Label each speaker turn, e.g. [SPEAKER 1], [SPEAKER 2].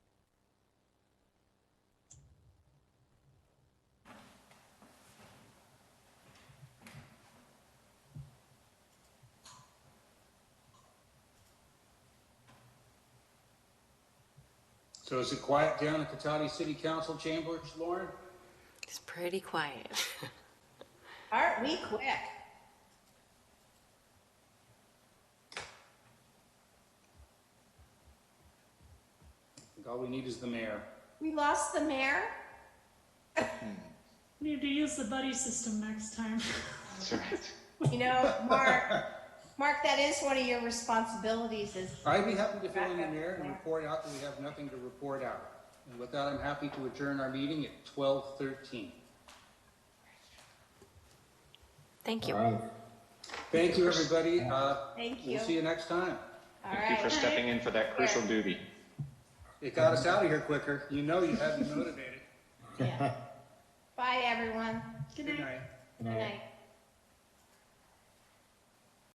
[SPEAKER 1] So is it quiet down at Cotati City Council chambers, Lauren?
[SPEAKER 2] It's pretty quiet.
[SPEAKER 3] Aren't we quick?
[SPEAKER 1] I think All we need is the mayor.
[SPEAKER 3] We lost the mayor?
[SPEAKER 4] Need to use the buddy system next time.
[SPEAKER 5] That's right.
[SPEAKER 3] You know, Mark, Mark, that is one of your responsibilities is,
[SPEAKER 1] I'd be happy to fill in the mayor and report out that we have nothing to report out. And with that, I'm happy to adjourn our meeting at twelve thirteen.
[SPEAKER 2] Thank you.
[SPEAKER 6] All right.
[SPEAKER 1] Thank you, everybody. Uh,
[SPEAKER 3] thank you.
[SPEAKER 1] we'll see you next time.
[SPEAKER 3] All
[SPEAKER 5] Thank you for
[SPEAKER 3] right.
[SPEAKER 5] stepping in for that crucial duty.
[SPEAKER 1] It got us out of here quicker. You know you had me motivated.
[SPEAKER 3] Yeah. Bye, everyone.
[SPEAKER 4] Good
[SPEAKER 1] Good
[SPEAKER 4] night.
[SPEAKER 1] night.
[SPEAKER 6] Good
[SPEAKER 3] Good
[SPEAKER 6] night.
[SPEAKER 3] night.